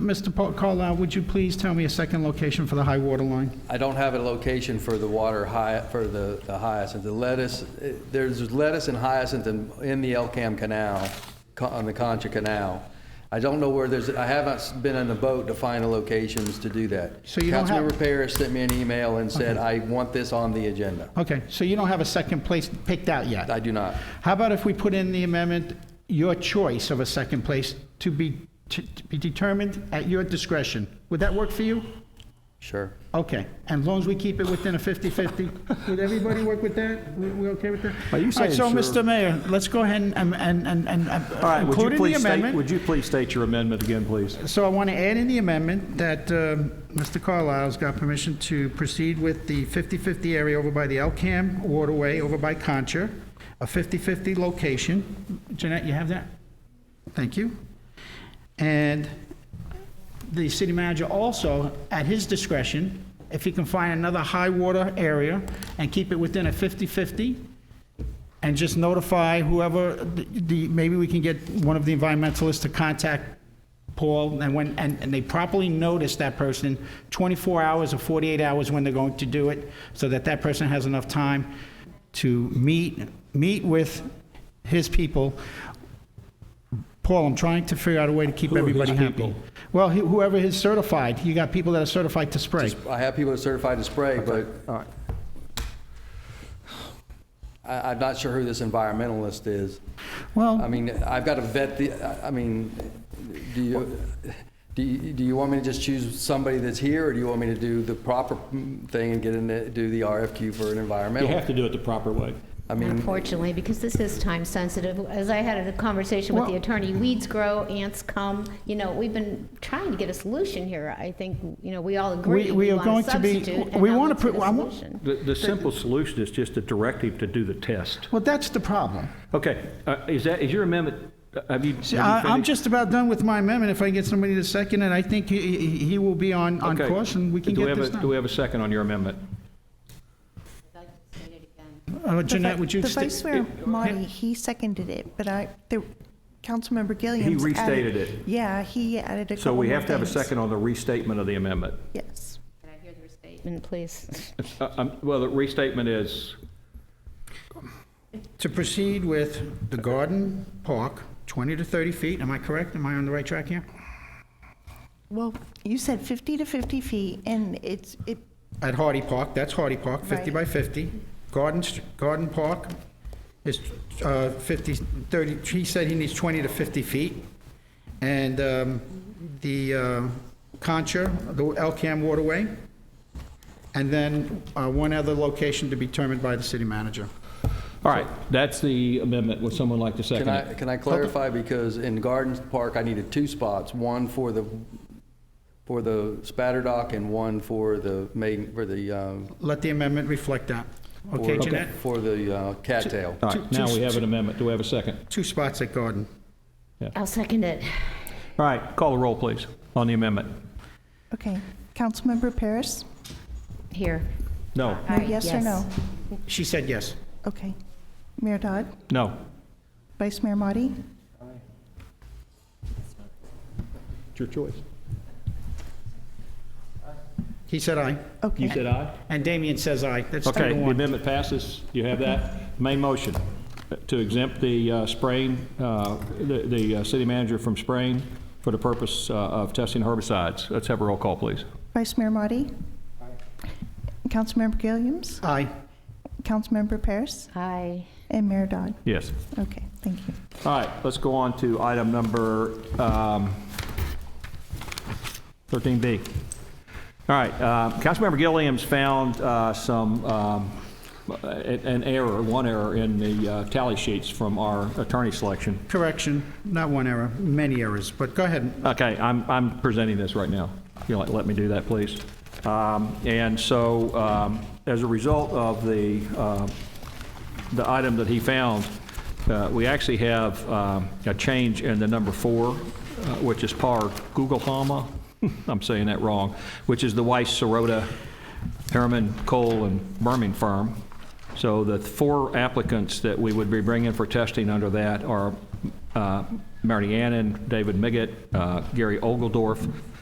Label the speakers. Speaker 1: Mr. Paul- Carlisle, would you please tell me a second location for the high water line?
Speaker 2: I don't have a location for the water hy, for the the hyacinth. The lettuce, eh, there's lettuce and hyacinth in, in the Elkham Canal, co- on the Concha Canal. I don't know where there's, I haven't s- been on the boat to find the locations to do that.
Speaker 1: So you don't have-
Speaker 2: Councilmember Paris sent me an email and said, I want this on the agenda.
Speaker 1: Okay, so you don't have a second place picked out yet?
Speaker 2: I do not.
Speaker 1: How about if we put in the amendment, your choice of a second place to be, to to be determined at your discretion? Would that work for you?
Speaker 2: Sure.
Speaker 1: Okay, and as long as we keep it within a 50-50, would everybody work with that? We we okay with that?
Speaker 3: Are you saying
Speaker 1: All right, so,
Speaker 3: sure?
Speaker 1: Mr. Mayor, let's go ahead and, and, and, and
Speaker 3: All
Speaker 1: uh,
Speaker 3: right, would
Speaker 1: include
Speaker 3: you
Speaker 1: in the
Speaker 3: please state,
Speaker 1: amendment.
Speaker 3: would you please state your amendment again, please?
Speaker 1: So I want to add in the amendment that um, Mr. Carlisle's got permission to proceed with the 50-50 area over by the Elkham waterway over by Concha, a 50-50 location. Jeanette, you have that? Thank you. And the city manager also, at his discretion, if he can find another high water area and keep it within a 50-50, and just notify whoever, the- the, maybe we can get one of the environmentalists to contact Paul, and when, and, and they properly notice that person 24 hours or 48 hours when they're going to do it, so that that person has enough time to meet, meet with his people. Paul, I'm trying to figure out a way to keep
Speaker 4: Who are his
Speaker 1: everybody happy.
Speaker 4: people?
Speaker 1: Well, he- whoever is certified, you got people that are certified to spray.
Speaker 2: I have people that are certified to spray, but I, I'm not sure who this environmentalist is. I
Speaker 1: Well,
Speaker 2: mean, I've got to vet the, I- I mean, do you, do you, do you want me to just choose somebody that's here, or do you want me to do the proper thing and get in, the- do the RFQ for an
Speaker 4: You
Speaker 2: environmental?
Speaker 4: have to do it the proper way.
Speaker 2: I mean,
Speaker 5: Unfortunately, because this is time sensitive, as I had a conversation with the
Speaker 1: Well-
Speaker 5: attorney, weeds grow, ants come, you know, we've been trying to get a solution here. I think, you know, we all
Speaker 1: We-
Speaker 5: agree,
Speaker 1: we
Speaker 5: we
Speaker 1: are going
Speaker 5: want a
Speaker 1: to be-
Speaker 5: substitute, and
Speaker 1: we
Speaker 5: now
Speaker 1: wanna
Speaker 5: let's get
Speaker 1: put- I
Speaker 5: a
Speaker 1: want-
Speaker 5: solution.
Speaker 6: The, the simple solution is just a directive to do the test.
Speaker 1: well, that's the problem.
Speaker 6: Okay, uh, is that, is your amendment, uh, have you? have
Speaker 1: See,
Speaker 6: you
Speaker 1: I, I'm
Speaker 6: finished?
Speaker 1: just about done with my amendment. If I can get somebody to second it, I think he, he- he will be on, on
Speaker 6: Okay.
Speaker 1: course, and we can
Speaker 6: Do
Speaker 1: get
Speaker 6: have
Speaker 1: this
Speaker 6: a- Do we
Speaker 1: done.
Speaker 6: have a second on your amendment?
Speaker 1: Uh, Jeanette, would you?
Speaker 7: The
Speaker 1: sta-
Speaker 7: Vice Mayor Marty, he seconded it, but I, the, Councilmember Gilliam.
Speaker 6: He restated it.
Speaker 7: Yeah, he added a couple
Speaker 6: So we
Speaker 7: more
Speaker 6: have to have a
Speaker 7: things.
Speaker 6: second on the restatement of the amendment.
Speaker 7: Yes.
Speaker 5: And please,
Speaker 6: Uh, um, Well, the restatement is,
Speaker 1: To proceed with the garden park, 20 to 30 feet, am I correct? Am I on the right track here?
Speaker 7: Well, you said 50 to 50 feet, and it's, it,
Speaker 1: At Hardy Park, that's Hardy Park, 50 by
Speaker 7: Right.
Speaker 1: 50. Garden, Str- Garden Park is uh, 50, 30, he said he needs 20 to 50 feet. And um, the uh, Concha, the Elkham Waterway, and then uh, one other location to be determined by the city manager.
Speaker 4: All right, that's the amendment. Would someone like to
Speaker 2: can
Speaker 4: second
Speaker 2: I,
Speaker 4: it?
Speaker 2: can I clarify, because in Gardens Park, I needed two spots, one for the, for the spatter dock and one for the main, for the, um,
Speaker 1: Let the amendment reflect that.
Speaker 2: for-
Speaker 1: Okay, Jeanette?
Speaker 2: For the uh, cattail.
Speaker 4: All
Speaker 1: Two-
Speaker 4: right, now
Speaker 1: two-
Speaker 4: we have an amendment. Do we have a second?
Speaker 1: Two spots at Garden.
Speaker 5: I'll second it.
Speaker 6: all right, call the roll, please, on the amendment.
Speaker 7: okay. Councilmember Paris?
Speaker 5: Here.
Speaker 6: No,
Speaker 7: No, Uh, Yes or
Speaker 5: yes.
Speaker 7: no?
Speaker 1: She said yes.
Speaker 7: Okay. Mayor Dodd?
Speaker 6: no.
Speaker 7: Vice Mayor Marty?
Speaker 4: It's your choice.
Speaker 1: He said aye.
Speaker 4: You
Speaker 7: Okay.
Speaker 4: said aye?
Speaker 1: And Damian says aye. That's three
Speaker 4: Okay,
Speaker 1: to
Speaker 4: the
Speaker 1: one.
Speaker 4: amendment passes. You have that. Main motion, uh, to exempt the uh, spraying, uh, the the, uh, city manager from spraying for the purpose uh, of testing herbicides. Let's have a roll call, please.
Speaker 7: Vice Mayor Marty? Councilmember Gilliams?
Speaker 1: Aye.
Speaker 7: Councilmember Paris?
Speaker 5: Aye.
Speaker 7: And Mayor Dodd?
Speaker 6: Yes.
Speaker 7: Okay, thank you.
Speaker 6: All right, let's go on to item number um, 13B. All right, uh, Councilmember Gilliam's found uh, some, um, a- an error, one error in the uh, tally sheets from our attorney selection.
Speaker 1: Correction, not one error, many errors, but go ahead.
Speaker 6: Okay, I'm, I'm presenting this right now. You'll let me do that, please. Um, And so, um, as a result of the, uh, the item that he found, uh, we actually have um, a change in the number four, uh, which is par Gugelhama, I'm saying that wrong, which is the Weiss, Sorota, Harriman, Cole, and Berman firm. So the four applicants that we would be bringing for testing under that are uh, Marty Annan, David Miggott, uh, Gary Ogeldorf,